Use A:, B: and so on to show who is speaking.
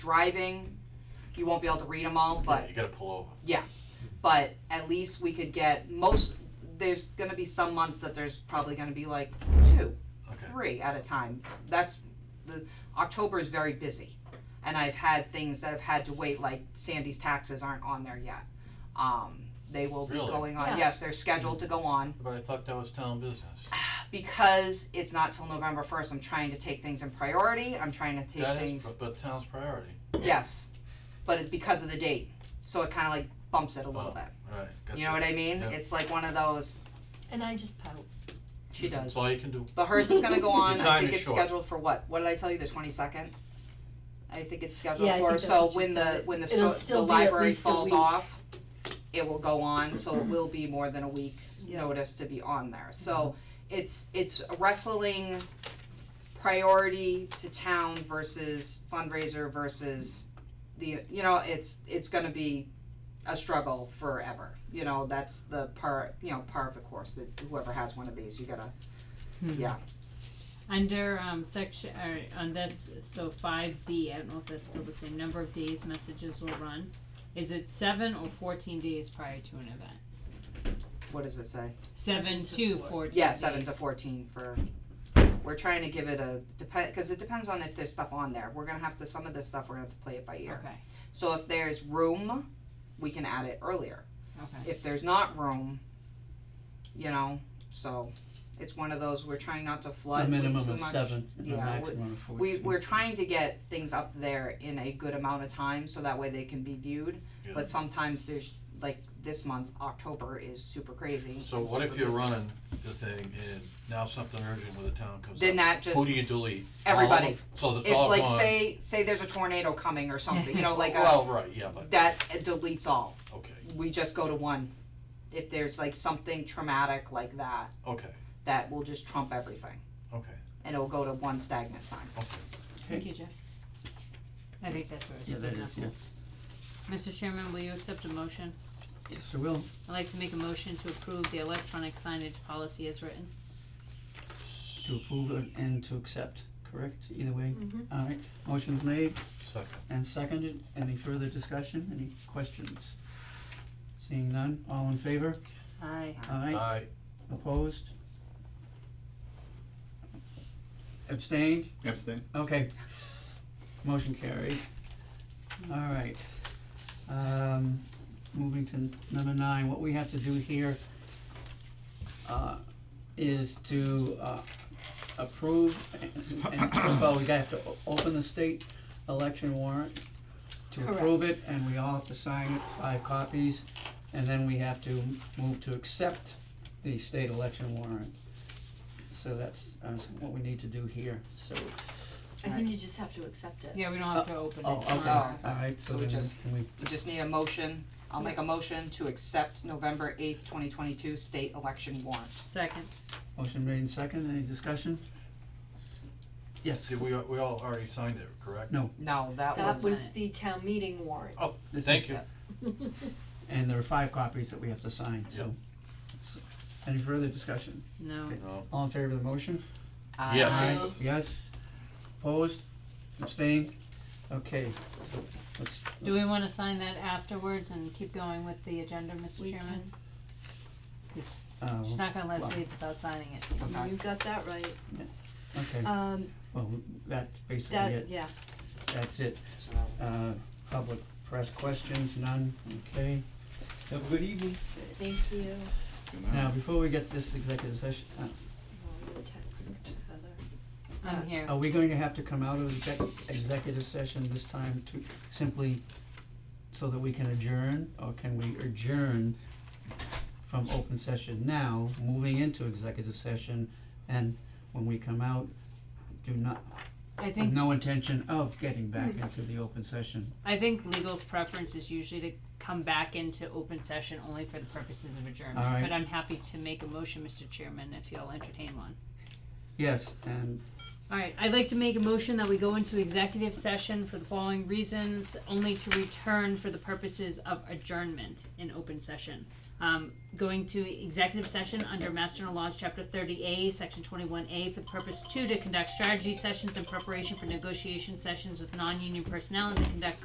A: driving, you won't be able to read them all, but
B: You gotta pull over.
A: but at least we could get most, there's gonna be some months that there's probably gonna be like two,
B: Okay.
A: three at a time. That's, the, October is very busy, and I've had things that have had to wait, like Sandy's taxes aren't on there yet. Um, they will be
B: Really?
A: going on,
C: Yeah.
A: yes, they're scheduled to go on,
B: But I thought that was town business.
A: because it's not till November first, I'm trying to take things in priority, I'm trying to take
B: That is,
A: things,
B: but, but town's priority.
A: yes, but it's because of the date, so it kinda like bumps it a little
B: Oh,
A: bit,
B: Right, gotcha.
A: you know what I mean?
B: Yeah.
A: It's like one of those,
C: And I just pout.
A: she does.
B: That's all you can do.
A: But hers is gonna go on,
B: The
A: I
B: time
A: think
B: is
A: it's
B: short.
A: scheduled for what, what did I tell you, the twenty second? I think it's scheduled
C: Yeah, I
A: for,
C: think that's
A: so
C: what you
A: when the,
C: said.
A: when the sto-
C: It'll
A: the
C: still be at
A: library
C: least a
A: falls
C: week.
A: off, it will go on, so it will be more than a week
C: Yeah. Mm-hmm.
A: notice to be on there, so it's, it's wrestling priority to town versus fundraiser versus the, you know, it's, it's gonna be a struggle forever, you know, that's the part, you know, part of the course, that whoever has one of these, you gotta, yeah.
D: Under um section, or on this, so five B, I don't know if that's still the same, number of days messages will run. Is it seven or fourteen days prior to an event?
A: what does it say?
D: Seven
C: Seven
D: to
C: to
D: fourteen
A: Yeah, seven to
D: days.
A: fourteen for, we're trying to give it a, depend, cause it depends on if there's stuff on there, we're gonna have to, some of this stuff, we're gonna have to play it by ear.
D: Okay,
A: So if there's room, we can add it earlier,
D: okay.
A: if there's not room, you know, so, it's one of those, we're trying not to flood
E: A
A: with too
E: minimum
A: much.
E: of seven and a
A: yeah, we-
E: maximum of
A: We,
E: fourteen.
A: we're trying to get things up there in a good amount of time, so that way they can be viewed,
B: Yeah.
A: but sometimes there's, like, this month, October is super crazy.
B: So
A: and
B: what if
A: super
B: you're
A: busy.
B: running the thing and now something urgent with the town comes up?
A: Then that just
B: Who do you delete? All of
A: everybody.
B: them? So that's
A: if
B: all gone.
A: like say say there's a tornado coming or something, you know, like a,
B: Well, right, yeah, but,
A: that uh, deletes all.
B: okay,
A: We just go to one. If there's like something traumatic like that,
B: okay,
A: that will just trump everything,
B: okay,
A: and it'll go to one stagnant sign.
B: okay.
D: Thank you, Jeff. I think that's where it's
E: Yeah, that
D: good
E: is,
D: enough.
E: yes.
D: Mr. Chairman, will you accept a motion?
E: Yes, I will.
D: I'd like to make a motion to approve the electronic signage policy as written.
E: To approve and- and to accept, correct? Either way.
A: Mm-hmm.
C: Mhm.
E: All right. Motion's made
B: Second,
E: and seconded. Any further discussion? Any questions? Seeing none. All in favor?
D: Aye.
E: Aye.
B: aye,
E: Opposed? Abstained?
F: Abstain.
E: Okay. Motion carried. All right. Um, moving to number nine, what we have to do here uh, is to, uh, approve, and and first of all, we have to o- open the state election warrant to approve it, and we all have to sign it, five copies, and then we have to move to accept the state election warrant. So that's, uh, what we need to do here, so,
C: I think you just have to accept it.
D: Yeah, we don't have to open it.
E: Oh, okay,
A: Oh.
E: alright, so
A: So we
E: then
A: just-
E: can we,
A: We just need a motion. I'll make a motion to accept November eighth, twenty twenty two state election warrant.
D: Second.
E: motion made in second, any discussion? Yes,
B: see, we, we all already signed it, correct?
E: No.
A: No, that
C: That
A: was Oh,
C: was the town meeting warrant.
E: this
B: Thank
E: is-
B: you,
E: and there are five copies that we have to sign, so. so, Any further discussion?
D: No.
B: no,
E: All in favor of the motion?
A: uh,
B: Yes.
E: Aye. Yes, opposed, abstained, okay, so let's,
D: Do we wanna sign that afterwards and keep going with the agenda, Mr.
C: We
D: Chairman?
C: can-
E: uh,
D: She's not gonna let us
E: Well-
D: leave without signing it.
A: Okay.
C: You got that right.
E: okay,
C: Um,
E: well, that's basically
C: that,
E: it,
C: yeah.
E: that's it,
A: So that-
E: uh, public press questions, none, okay. Have a good evening.
C: Thank you.
F: Good
E: Now,
F: night.
E: before we get this executive session, uh,
C: Well, we Text Heather.
D: I'm here.
E: Are we going to have to come out of exec- executive session this time to simply so that we can adjourn, or can we adjourn from open session now, moving into executive session, and when we come out, do not,
D: I
E: have
D: think, Hmm.
E: no intention of getting back into the open session?
D: I think legal's preference is usually to come back into open session only for the purposes of
E: All
D: adjournment,
E: right.
D: but I'm happy to make a motion, Mr. Chairman, if you'll entertain one.
E: Yes, and
D: Alright, I'd like to make a motion that we go into executive session for the following reasons, only to return for the purposes of adjournment in open session. Um, going to executive session under Master General Laws, Chapter thirty A, Section twenty-one A, for the purpose two, to conduct strategy sessions in preparation for negotiation sessions with non-union personnel and to conduct